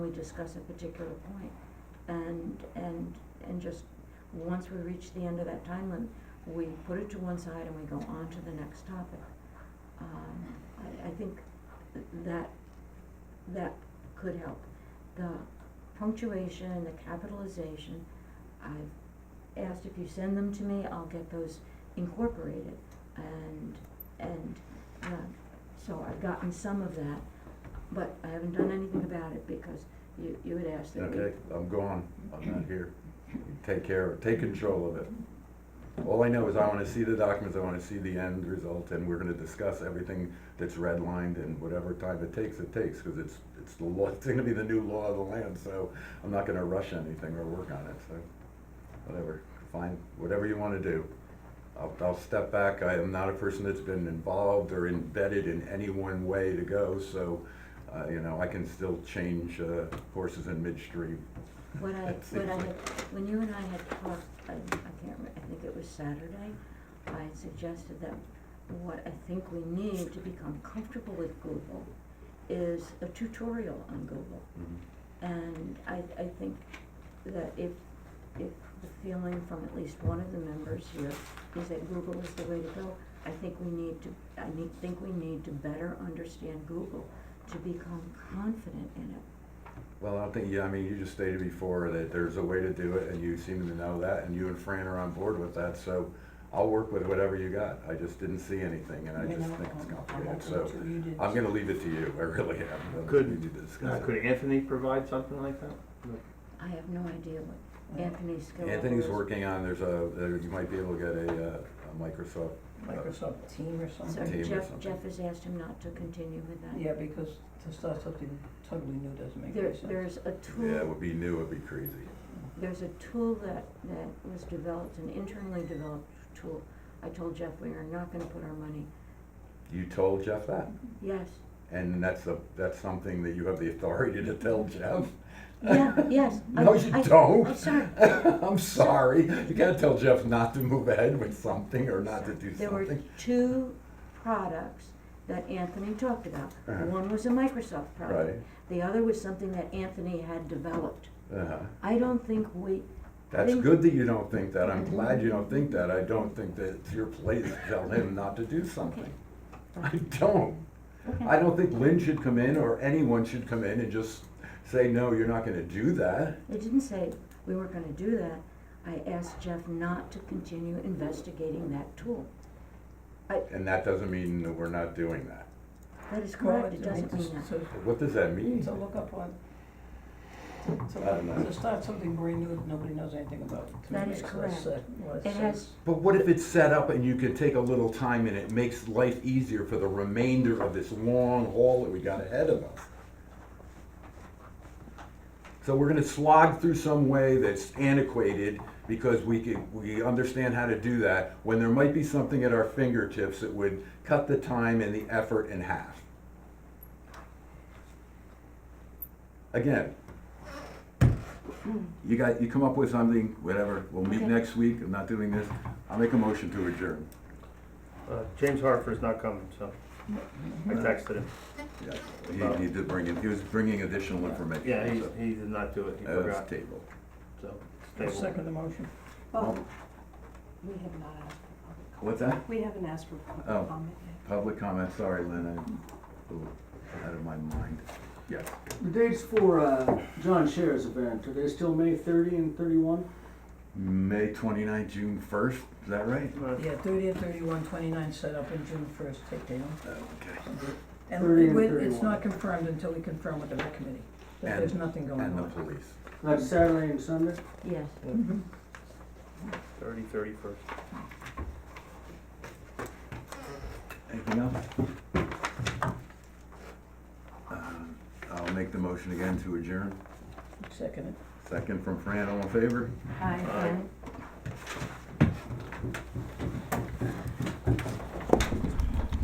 discuss a particular point. And, and, and just, once we reach the end of that time limit, we put it to one side and we go on to the next topic. Um, I, I think that, that could help. The punctuation, the capitalization, I've asked if you send them to me, I'll get those incorporated. And, and, uh, so I've gotten some of that, but I haven't done anything about it because you, you had asked that we. Okay, I'm gone, I'm not here. Take care, take control of it. All I know is I wanna see the documents, I wanna see the end result, and we're gonna discuss everything that's redlined and whatever time it takes, it takes, cause it's, it's the law, it's gonna be the new law of the land, so I'm not gonna rush anything or work on it, so, whatever, fine, whatever you wanna do. I'll, I'll step back, I am not a person that's been involved or embedded in any one way to go, so, uh, you know, I can still change, uh, courses in midstream. What I, It what seems I like- had, when you and I had talked, I, I can't remember, I think it was Saturday, I had suggested that what I think we need to become comfortable with Google is a tutorial on Google. Mhm. And I, I think that if, if the feeling from at least one of the members here is that Google is the way to go, I think we need to, I need, think we need to better understand Google, to become confident in it. Well, I think, yeah, I mean, you just stated before that there's a way to do it, and you seem to know that, and you and Fran are on board with that, so I'll work with whatever you got. I just didn't see anything, and I You just know, think it's I'm- I'm complicated, open so to you to- I'm gonna leave it to you, I really am. Could- You need to Now, discuss it. could Anthony provide something like that? I have no idea what Anthony's skill level is. Anthony's working on, there's a, there- you might be able to get a, uh, a Microsoft. uh, Microsoft Team or So something. team or Jeff, something. Jeff has asked him not to continue with that. Yeah, because to start something totally new doesn't make There, any sense. there's a Yeah, it tool, would be new, it'd be crazy. there's a tool that, that was developed, an internally developed tool. I told Jeff we are not gonna put our money, You told Jeff that? yes, And that's a, that's something that you have the authority to tell Jeff? yeah, yes. I- No, you I- don't. I'm sorry, I'm sorry. You gotta tell Jeff not to move ahead with something or not to do there were something. two products that Anthony talked about. Uh-huh. One was a Microsoft Right. product, the other was something that Anthony had developed. Uh-huh. I don't think we, That's Think- good that you don't think that. I'm glad you don't think that. I don't think that it's your place to tell him not to do something. I don't. okay. I don't think Lynn should come in or anyone should come in and just say, no, you're not gonna do that. They didn't say we weren't gonna do that. I asked Jeff not to continue investigating that tool. And that doesn't mean that we're not doing that. That is Well, correct, it doesn't mean that. To, What does that mean? to look up on, to, I don't know. to, to start something brand new that nobody knows anything about. to That me is makes less correct. sen- less It has- sense. But what if it's set up and you can take a little time and it makes life easier for the remainder of this long haul that we got ahead of us? So we're gonna slog through some way that's antiquated because we could, we understand how to do that, when there might be something at our fingertips that would cut the time and the effort in half. Again, you got, you come up with something, whatever, we'll meet Okay. next week, I'm not doing this, I'll make a motion to adjourn. Uh, James Harper's not coming, so I texted him. Yeah, He, he did bring in, he was bringing additional information. Yeah, he, so, he did not do it, he uh, it's forgot, tabled. so. I'll it's tabled. uh, Second the motion. Well, we have not asked for public comment. What's that? We haven't asked for public Oh. comment yet. Public comment, sorry, Lynn, I'm oh, out of my mind. Yes. The dates for uh, John Scherer's event, are they still May 30 and 31? May 29th, June first, is that right? Uh, Yeah, thirty and thirty-one, twenty-nine set up and June first, take down. Oh, Okay. And 30 and it- it's 31. not confirmed until we confirm with the rec committee, that And- there's nothing going on. And the police. That's Saturday and Sunday? Yes. Mhm. Mm-hmm. Thirty, thirty-first. Anything else? Uh, I'll make the motion again to adjourn. Second it. Second from Fran, all in favor? Aye. Aye.